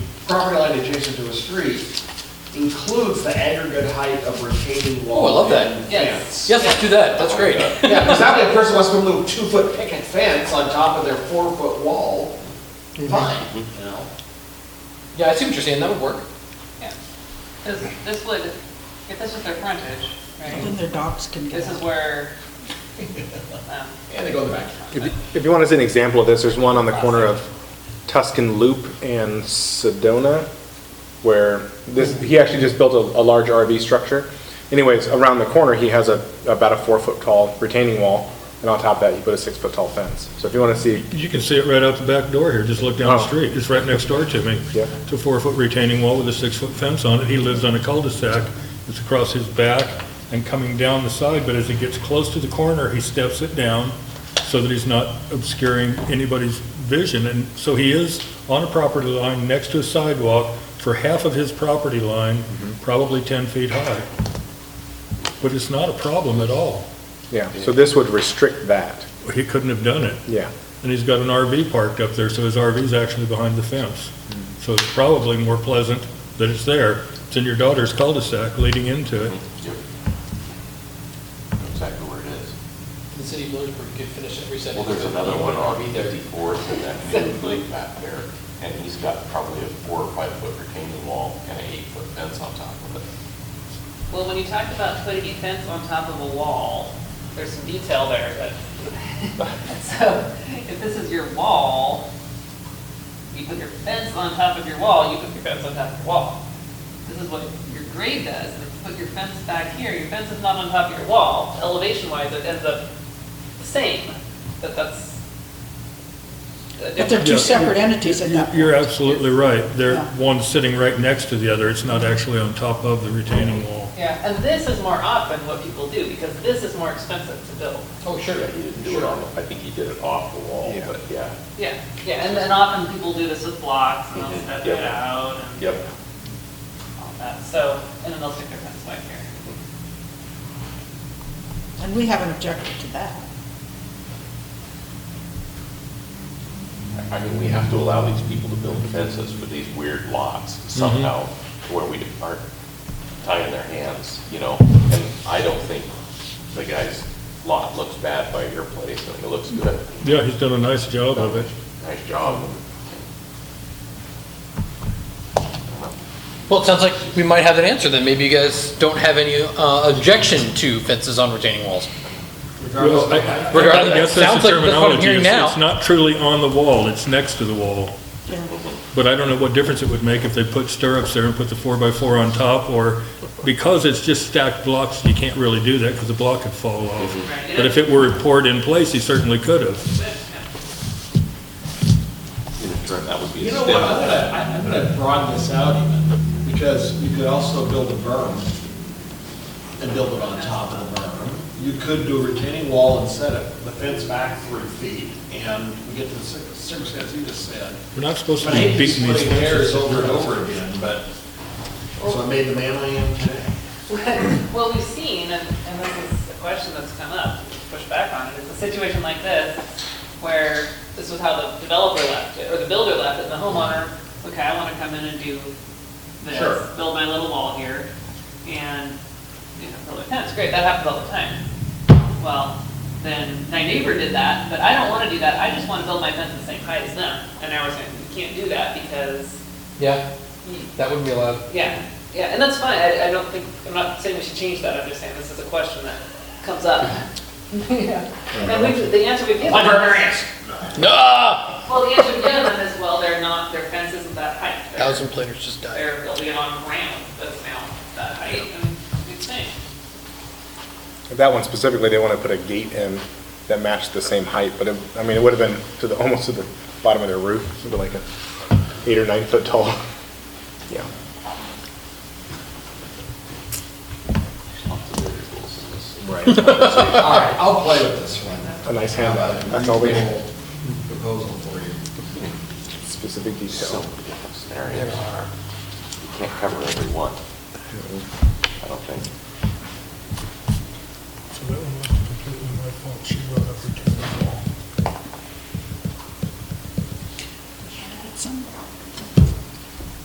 property line adjacent to a street includes the aggregate height of retaining Oh, wall. I love and that. fence. Yes, let's do that, Oh that's great. Yeah, because that way a person wants to move two-foot picket fence on top of their four-foot wall, Mm-hmm. fine, you know? Yeah, I see what you're saying, that would work. Yeah. This, this would, if this was their frontage, Then right, their dogs can get this is out. where, um, And they go in the back. If you- if you want to see an example of this, there's one on the corner of Tuscan Loop and Sedona, where this, he actually just built a, a large RV structure. Anyways, around the corner, he has a, about a four-foot-tall retaining wall, and on top of that, he put a six-foot-tall fence. So if you want to see, You can see it right out the back door here, just look down the Oh. street, it's right next door to me. Yeah. It's a four-foot retaining wall with a six-foot fence on it, he lives on a cul-de-sac, it's across his back and coming down the side, but as he gets close to the corner, he steps it down so that he's not obscuring anybody's vision, and so he is on a property line next to a sidewalk for half of his property line, Mm-hmm. probably 10 feet high. But it's not a problem at all, yeah, so this would restrict that, he couldn't have done it. yeah. And he's got an RV parked up there, so his RV's actually behind the fence. Hmm. So it's probably more pleasant that it's there. It's in your daughter's cul-de-sac leading into it. know exactly where it is. The city of Lewisburg could finish every Well, sentence. there's another one on Be there. fifty-fourth in that new lake map there, and he's got probably a four or five foot retaining wall and an eight foot fence on top of it. well, when you talked about putting a fence on top of a wall, there's some detail there, but, so, if this is your wall, you put your fence on top of your wall, you put your fence on top of your wall. This is what your grade does, and if you put your fence back here, your fence is not on top of your wall, elevation wise, it ends up the same, but that's. But they're two separate entities at that point. You're absolutely right. They're, Yeah. one's sitting right next to the other. It's not actually on top of the retaining Hmm. wall. Yeah, and this is more often what people do, because this is more expensive to build. Oh, sure. Yeah, he didn't do it on, the- I think he did it off the wall, Yeah. but yeah, Yeah, yeah, and then often people do this with blocks, and they'll step it Yeah. out and yep. all that, so, and then they'll stick their fence back here. And we haven't objected to that. I mean, we have to allow these people to build fences for these weird lots Mm-hmm. somehow, where we aren't tying their hands, you know? And I don't think the guy's lot looks bad by your place, I think it looks good. Yeah, he's done a nice job of it. Nice job. Well, it sounds like we might have that answer then. Maybe you guys don't have any uh, objection to fences on retaining walls. Regardless of I- the I- height. I Regardless, that guess that's sounds the like that's what I'm terminology. hearing It's- now. It's not truly on the wall, it's next to the wall. Yeah. But I don't know what difference it would make if they put stirrups there and put the four-by-four on top, or, because it's just stacked blocks, you can't really do that, because the block could fall off. Right. But if it were poured in place, he certainly could have. That would be You a know what, step. I'm gonna, I- I'm gonna broaden this out even, because you could also build a berm and build it on top of the berm. You could do a retaining wall and set it, the fence back three feet, and we get to the cir- circumstance you just said. We're not supposed to But I be hate these beating these splitting hairs fences. over and over again, but, so I made the man I am today. Well, we've seen, and, and this is a question that's come up, push back on it, is a situation like this, where this was how the developer left it, or the builder left it, and the homeowner, okay, I wanna come in and do Sure. this, build my little wall here, and, you know, build a fence, great, that happens all the time. Well, then, my neighbor did that, but I don't wanna do that, I just wanna build my fence the same height as them, and now we're saying, you can't do that, because hmm, Yeah, you that wouldn't be allowed. yeah, yeah, and that's fine, I, I don't think, I'm not saying we should change that, I'm just saying this is a question that comes up. And we, the answer we've given. Librarians. Ah! Well, the answer we've given is, well, they're not, their fence isn't that height. They're- Thousand platers just died. They're building on ground that's now that height, and it's saying, That one specifically, they want to put a gate in that matched the same height, but it, I mean, it would have been to the, almost to the bottom of their roof, something like a eight or nine foot tall. Yeah. Right. All right, I'll play with this one. A nice handout. That's all we need. Proposal for you. Specific detail. So many different scenarios. You can't cover every one, I don't think. So that one was completely my fault, she wrote